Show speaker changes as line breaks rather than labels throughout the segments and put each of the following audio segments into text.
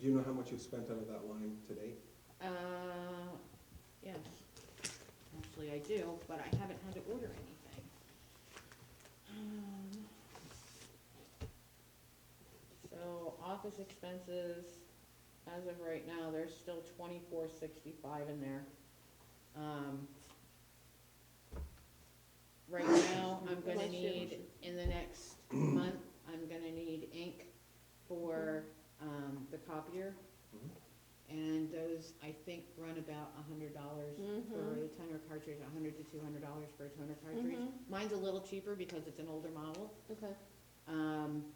do you know how much you've spent out of that line today?
Uh, yes, actually I do, but I haven't had to order anything. Um, So office expenses, as of right now, there's still twenty-four sixty-five in there. Um, Right now, I'm gonna
Bless you.
need, in the next month, I'm gonna need ink for, um, the copier.
Mhm.
And those, I think, run about a hundred dollars for
Mhm.
the toner cartridge, a hundred to two hundred dollars for a toner cartridge.
Mhm.
Mine's a little cheaper because it's an older model,
Okay.
um,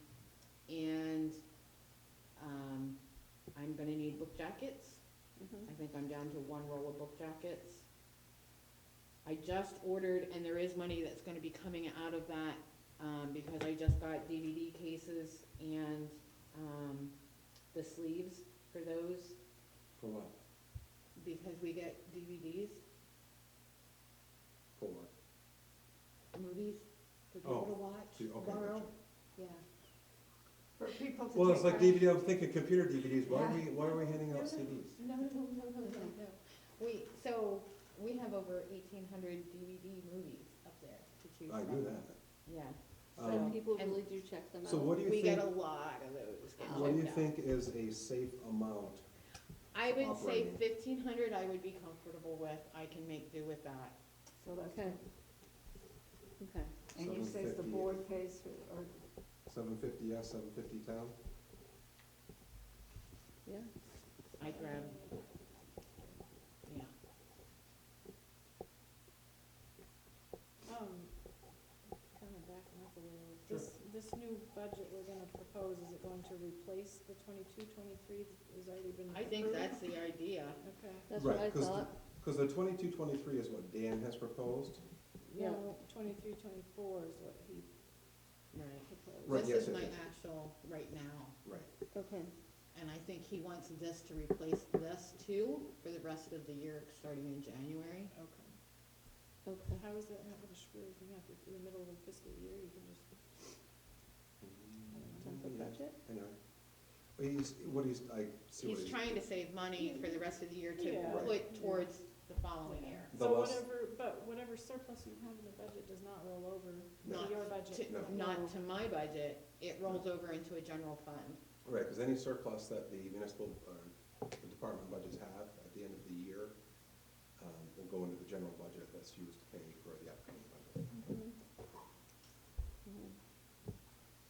and, um, I'm gonna need book jackets.
Mhm.
I think I'm down to one roll of book jackets. I just ordered, and there is money that's gonna be coming out of that, um, because I just got DVD cases and, um, the sleeves for those,
For what?
because we get DVDs,
For what?
movies for people to watch,
Oh, See, okay,
borrow,
gotcha.
yeah.
For people to.
Well, it's
take
like
our-
DVD, I'm thinking computer DVDs, why are we, why are we handing out CDs?
No, no, no, no, no, no. We, so, we have over eighteen hundred DVD movies up there to choose from.
I knew that.
Yeah.
So
Um,
people
and-
really do check them out.
So what do
We
you
get
think,
a lot of those. get
what do you
checked out.
think is a safe amount?
I would say
operating?
fifteen hundred I would be comfortable with, I can make do with that.
So that's,
Okay. Okay.
and you says the
750.
board pays for, or,
Seven fifty yes, seven fifty town?
Yeah.
I grab, yeah.
Um,
Kind of backing up a little.
this, this new budget we're gonna propose, is it going to replace the twenty-two, twenty-three that has already been
I think
approved?
that's the idea.
Okay,
That's what I
Right, 'cause
thought.
Cause the twenty-two, twenty-three is what Dan has proposed.
Yeah.
no, twenty-three, twenty-four is what he
Right.
proposed.
Right, yes,
This is
yes,
my
yes.
actual right now,
Right.
Okay.
and I think he wants this to replace this too for the rest of the year, starting in January.
Okay.
Okay.
How is that not gonna screw everything up? If in the middle of the fiscal year, you can just,
Sounds like
Yeah,
budget.
I know. But he's, what he's, I see what
He's
he's,
trying to save money for the rest of the year to
Yeah.
Right.
put towards the following year.
The
so
less-
whatever, but whatever surplus you have in the budget does not roll over
Not
to your budget.
To-
No.
Not to my budget, it rolls over into a general fund.
right, cause any surplus that the municipal, uh, the department budgets have at the end of the year, um, will go into the general budget that's used to pay for the upcoming budget.
Mhm. Mhm.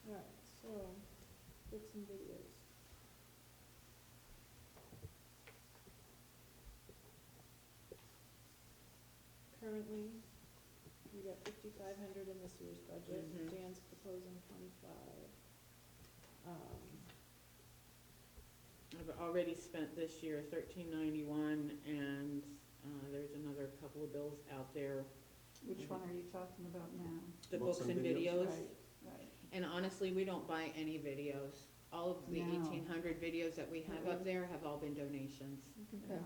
Alright, so, books and videos. Currently, we got fifty-five hundred in this year's budget,
Mhm.
Dan's proposing twenty-five. Um,
I've already spent this year thirteen ninety-one, and, uh, there's another couple of bills out there,
which one are you talking about now?
the books and videos.
Right, right.
And honestly, we don't buy any videos. All of the
No.
eighteen hundred videos that we have up there have all been donations
Okay.
Yeah.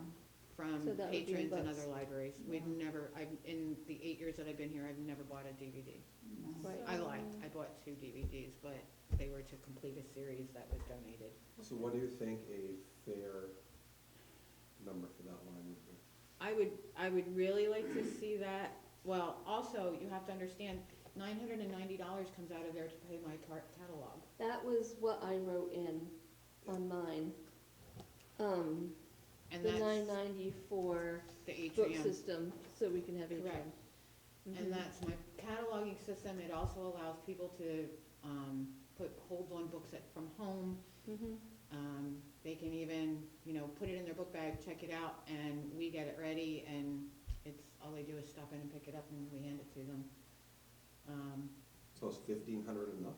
from
So that would be in
patrons and
books.
other libraries. We've
Yeah.
never, I've, in the eight years that I've been here, I've never bought a DVD.
No.
Right.
I lied, I bought two DVDs, but they were to complete a series that was donated.
So what do you think a fair number for that line would be?
I would, I would really like to see that, well, also, you have to understand, nine hundred and ninety dollars comes out of there to pay my car- catalog.
That was what I wrote in on mine. Um,
And
the nine
that's
ninety-four
the
book
atrium,
system, so we can have each
Correct.
one. mm-hmm.
and that's my cataloging system, it also allows people to, um, put holds on books at, from home.
Mm-hmm.
Um, they can even, you know, put it in their book bag, check it out, and we get it ready, and it's, all they do is stop in and pick it up, and we hand it to them. Um,
So it's fifteen hundred enough,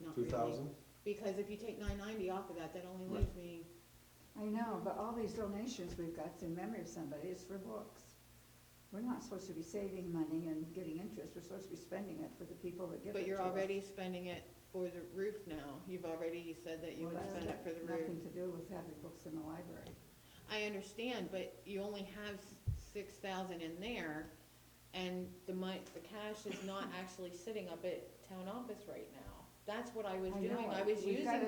not
two
really.
thousand?
Because if you take nine ninety off of that, that only
Right.
leaves me,
I know, but all these donations we've got in memory of somebody is for books. We're not supposed to be saving money and getting interest, we're supposed to be spending it for the people that give it to us.
but you're already spending it for the roof now. You've already said that you
Well,
would
that's
spend it
got
for the
Nothing
roof.
to do with having books in the library.
I understand, but you only have six thousand in there, and the mon, the cash is not actually sitting up at town office right now. That's what I was
I
doing.
know
I
it.
was
We've
using
gotta